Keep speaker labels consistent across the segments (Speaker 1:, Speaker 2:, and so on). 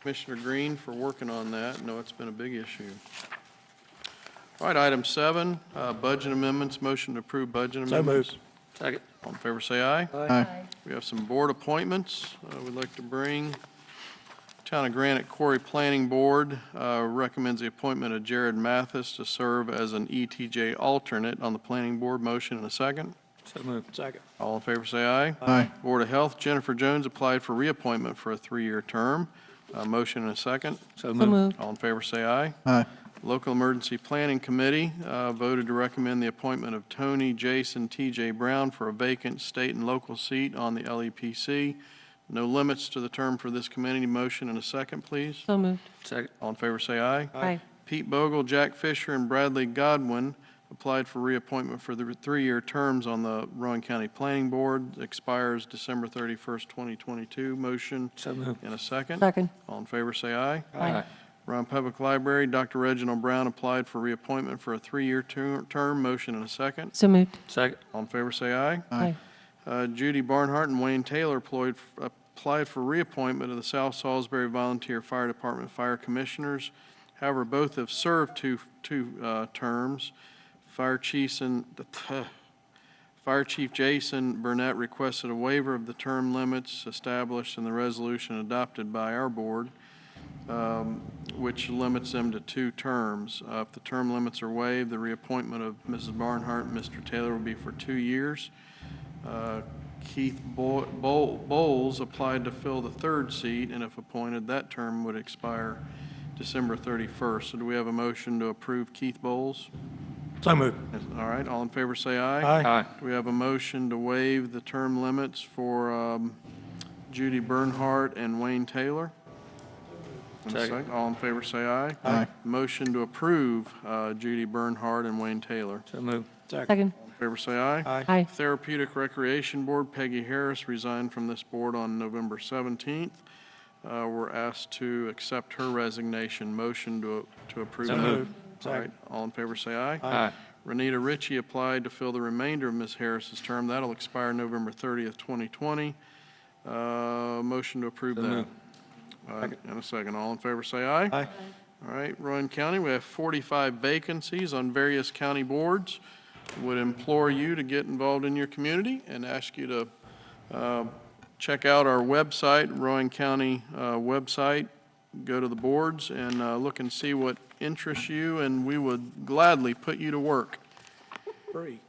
Speaker 1: Commissioner Green for working on that. I know it's been a big issue. All right, item seven, uh, budget amendments, motion to approve budget
Speaker 2: So
Speaker 1: amendments.
Speaker 2: moved. Second.
Speaker 1: All in favor, say aye.
Speaker 2: Aye.
Speaker 1: We have some board appointments. Uh, We'd like to bring Town of Granite Quarry Planning Board uh, recommends the appointment of Jared Mathis to serve as an ETJ alternate on the planning board. Motion and a second.
Speaker 2: So moved. Second.
Speaker 1: All in favor, say aye.
Speaker 2: Aye.
Speaker 1: Board of Health, Jennifer Jones applied for reappointment for a three-year term. Uh, Motion and a second.
Speaker 2: So
Speaker 3: So
Speaker 2: moved.
Speaker 3: moved.
Speaker 1: All in favor, say aye.
Speaker 4: Aye.
Speaker 1: Local Emergency Planning Committee uh, voted to recommend the appointment of Tony Jason T.J. Brown for a vacant state and local seat on the LEPC. No limits to the term for this committee. Motion and a second, please.
Speaker 3: So moved.
Speaker 2: Second.
Speaker 1: All in favor, say aye.
Speaker 3: Aye.
Speaker 1: Pete Bogle, Jack Fisher, and Bradley Godwin applied for reappointment for the three-year terms on the Rowan County Planning Board. Expires December 31st, 2022. Motion
Speaker 2: So moved.
Speaker 1: and a second.
Speaker 3: Second.
Speaker 1: All in favor, say aye.
Speaker 3: Aye.
Speaker 1: Round Public Library, Dr. Reginald Brown applied for reappointment for a three-year ter- term. Motion and a second.
Speaker 3: So moved.
Speaker 2: Second.
Speaker 1: All in favor, say aye.
Speaker 3: Aye.
Speaker 1: Uh, Judy Barnhart and Wayne Taylor ployed- applied for reappointment of the South Salisbury Volunteer Fire Department Fire Commissioners. However, both have served two, two uh, terms. Fire Chiefs and, Fire Chief Jason Burnett requested a waiver of the term limits established in the resolution adopted by our board, um, which limits them to two terms. Uh, If the term limits are waived, the reappointment of Mrs. Barnhart and Mr. Taylor will be for two years. Uh, Keith Bo- Bo- Bowles applied to fill the third seat, and if appointed, that term would expire December 31st. So do we have a motion to approve Keith Bowles?
Speaker 2: So moved.
Speaker 1: All right, all in favor, say aye.
Speaker 2: Aye.
Speaker 1: Do we have a motion to waive the term limits for um, Judy Bernhardt and Wayne Taylor? And a
Speaker 2: Second.
Speaker 1: sec- All in favor, say aye.
Speaker 4: Aye.
Speaker 1: Motion to approve uh, Judy Bernhardt and Wayne Taylor.
Speaker 2: So moved. Second.
Speaker 3: Second.
Speaker 1: All in favor, say aye.
Speaker 2: Aye.
Speaker 3: Aye.
Speaker 1: Therapeutic Recreation Board, Peggy Harris resigned from this board on November 17th. Uh, We're asked to accept her resignation. Motion to to approve
Speaker 2: So
Speaker 1: that.
Speaker 2: moved.
Speaker 1: All right, all in favor, say aye.
Speaker 2: Aye.
Speaker 1: Renita Ritchie applied to fill the remainder of Ms. Harris's term. That'll expire November 30th, 2020. Uh, Motion to approve
Speaker 2: So
Speaker 1: that.
Speaker 2: moved.
Speaker 1: All right, And a second, all in favor, say aye.
Speaker 2: Aye.
Speaker 1: All right, Rowan County, we have 45 vacancies on various county boards. Would implore you to get involved in your community and ask you to uh, check out our website, Rowan County uh, website, go to the boards and uh, look and see what interests you, and we would gladly put you to work
Speaker 2: Free.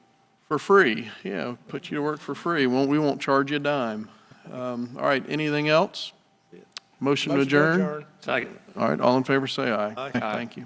Speaker 1: for free. Yeah, put you to work for free. Won't- We won't charge you a dime. Um, All right, anything else? Motion to adjourn?
Speaker 2: Second.
Speaker 1: All right, all in favor, say aye.
Speaker 2: Aye.
Speaker 1: Thank you.